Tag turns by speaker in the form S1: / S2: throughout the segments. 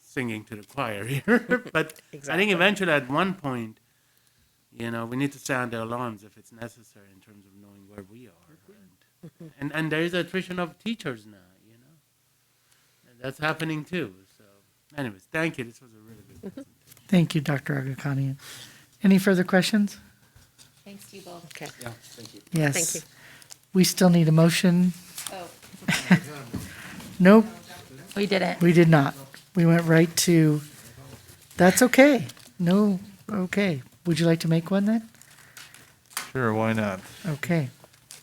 S1: singing to the choir here, but I think
S2: Exactly.
S1: eventually at one point, you know, we need to sound the alarms if it's necessary in terms of knowing where we are. And, and, and there is attrition of teachers now, you know, and that's happening too. So anyways, thank you. This was a really good presentation.
S3: Thank you, Dr. Agakanian. Any further questions?
S4: Thanks to you both.
S2: Okay.
S1: Yeah, thank you.
S3: Yes.
S2: you.
S3: We still need a motion.
S4: Oh,
S3: Nope,
S4: we didn't.
S3: we did not. We went right to, that's okay. No, okay. Would you like to make one then?
S5: Sure, why not?
S3: Okay.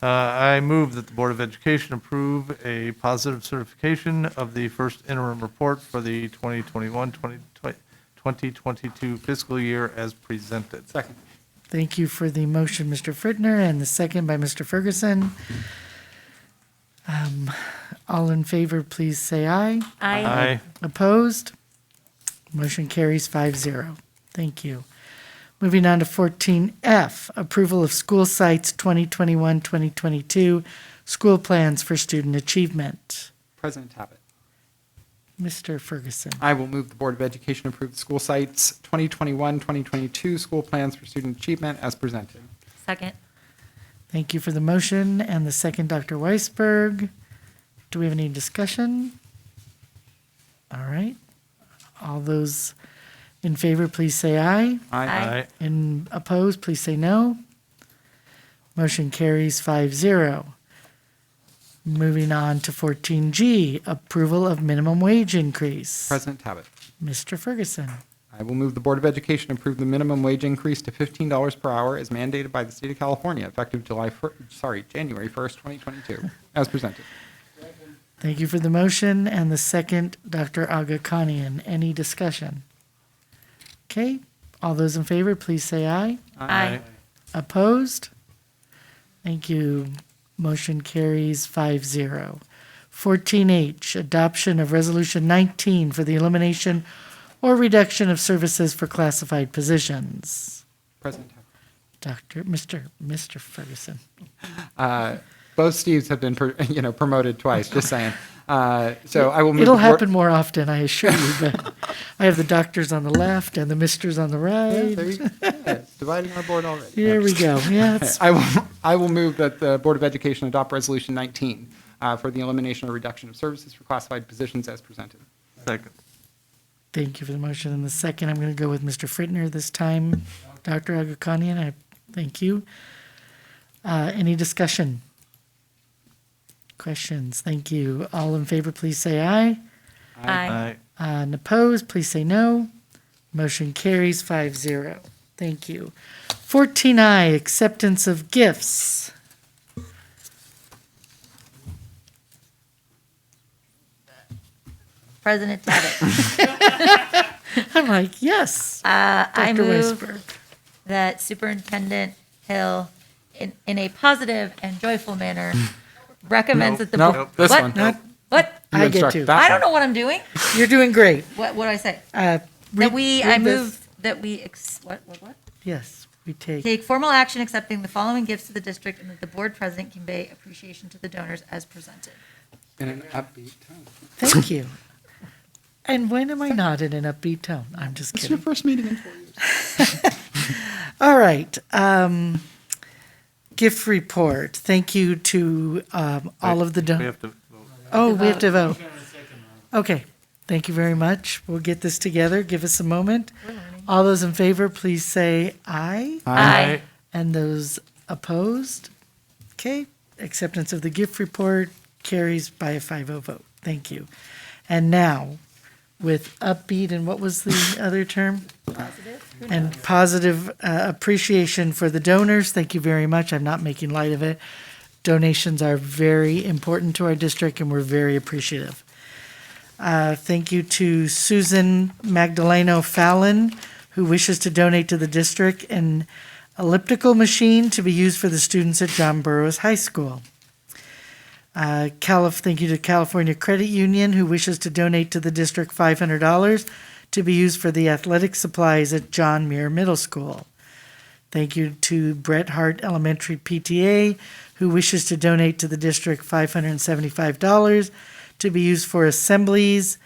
S5: Uh, I move that the Board of Education approve a positive certification of the first interim report for the 2021-2022 fiscal year as presented.
S1: Second.
S3: Thank you for the motion, Mr. Fritner, and the second by Mr. Ferguson. Um, All in favor, please say aye.
S4: I
S5: Aye.
S3: Opposed? Motion carries 5-0. Thank you. Moving on to 14F, approval of school sites 2021-2022, school plans for student achievement.
S6: President Tabbitt.
S3: Mr. Ferguson,
S6: I will move the Board of Education approve the school sites 2021-2022 school plans for student achievement as presented.
S4: Second.
S3: thank you for the motion and the second, Dr. Weisberg. Do we have any discussion? All right. All those in favor, please say aye.
S4: Aye.
S3: And opposed, please say no. Motion carries 5-0. Moving on to fourteen G, approval of minimum wage increase.
S6: President Tabbitt.
S3: Mr. Ferguson,
S6: I will move the Board of Education approve the minimum wage increase to $15 per hour as mandated by the state of California effective July, fir- sorry, January 1st, 2022, as presented.
S3: thank you for the motion and the second, Dr. Aga Kanian. Any discussion? Okay, all those in favor, please say aye.
S4: Aye.
S3: Opposed? Thank you. Motion carries 5-0. Fourteen H, adoption of resolution nineteen for the elimination or reduction of services for classified positions.
S6: President Tabbitt.
S3: Doctor, Mr. Mr. Ferguson.
S6: Uh, Both Steves have been, pr- you know, promoted twice, just saying. Uh, So I will move.
S3: It'll
S6: the Board-
S3: happen more often, I assure you, but I have the doctors on the left and the misters on the
S6: Yeah, there
S3: right.
S6: you go. Yeah, Dividing our board already.
S3: Here we go. Yeah,
S6: Okay,
S3: it's
S6: I will, I will move that the Board of Education adopt Resolution 19 uh, for the elimination or reduction of services for classified positions as presented.
S5: Second.
S3: Thank you for the motion and the second. I'm going to go with Mr. Fritner this time. Dr. Agakanian, I thank you. Uh, Any discussion? Questions? Thank you. All in favor, please say aye.
S4: I
S3: Uh, And opposed, please say no. Motion carries 5-0. Thank you. 14I, acceptance of gifts.
S4: President Tabbitt.
S3: I'm like, yes.
S4: Uh, I
S3: Dr.
S4: move
S3: Weisberg.
S4: that Superintendent Hill, in, in a positive and joyful manner, recommends that the.
S6: No,
S4: bo-
S6: no, this
S4: What?
S6: one. Nope.
S4: What?
S6: You
S3: I get
S6: instruct
S3: to.
S6: that
S4: I
S6: one.
S4: don't know what I'm doing.
S3: You're doing great.
S4: What, what do I say?
S3: Uh,
S4: That
S3: read-
S4: we, I
S3: read this.
S4: move that we, ex- what, what, what?
S3: Yes, we take.
S4: Take formal action accepting the following gifts to the district and that the board president convey appreciation to the donors as presented.
S6: In an upbeat tone.
S3: Thank you. And when am I not in an upbeat tone? I'm just
S6: It's your
S3: kidding.
S6: first meeting in four years.
S3: All right. Um, gift report. Thank you to um, all of the.
S5: We
S3: don-
S5: have to vote.
S3: Oh, we have to vote. Okay. Thank you very much. We'll get this together. Give us a moment. All those in favor, please say aye.
S4: Aye.
S3: And those opposed? Okay, acceptance of the gift report carries by a 5-0 vote. Thank you. And now, with upbeat and what was the other term? And positive uh, appreciation for the donors. Thank you very much. I'm not making light of it. Donations are very important to our district, and we're very appreciative. Uh, Thank you to Susan Magdaleno Fallon, who wishes to donate to the district an elliptical machine to be used for the students at John Burroughs High School. Uh, Calif, thank you to California Credit Union, who wishes to donate to the district $500 to be used for the athletic supplies at John Muir Middle School. Thank you to Bret Hart Elementary PTA, who wishes to donate to the district $575 to be used for assemblies,